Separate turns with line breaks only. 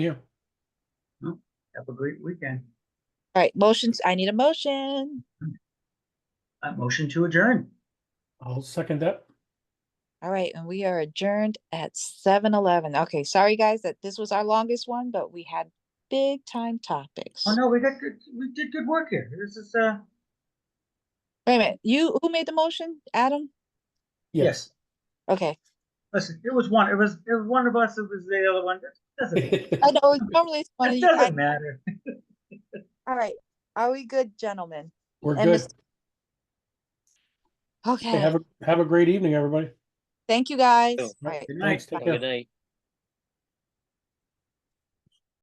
you.
Have a great weekend.
All right, motions, I need a motion.
Uh, motion to adjourn.
I'll second that.
All right, and we are adjourned at seven eleven. Okay, sorry guys that this was our longest one, but we had big time topics.
Oh, no, we got good, we did good work here. This is, uh,
Wait a minute, you, who made the motion? Adam?
Yes.
yes.
Okay,
Listen, it was one, it was, it was one of us, it was the other one. It doesn't,
I know normally it's one of
it
you. I-
doesn't matter.
All right, are we good, gentlemen?
We're
And
good.
Mr.
Hey,
Okay,
Have a, have a great evening, everybody.
thank you guys. All
Right,
right.
Good night.
Thanks. Take
Bye.
care.
Good night.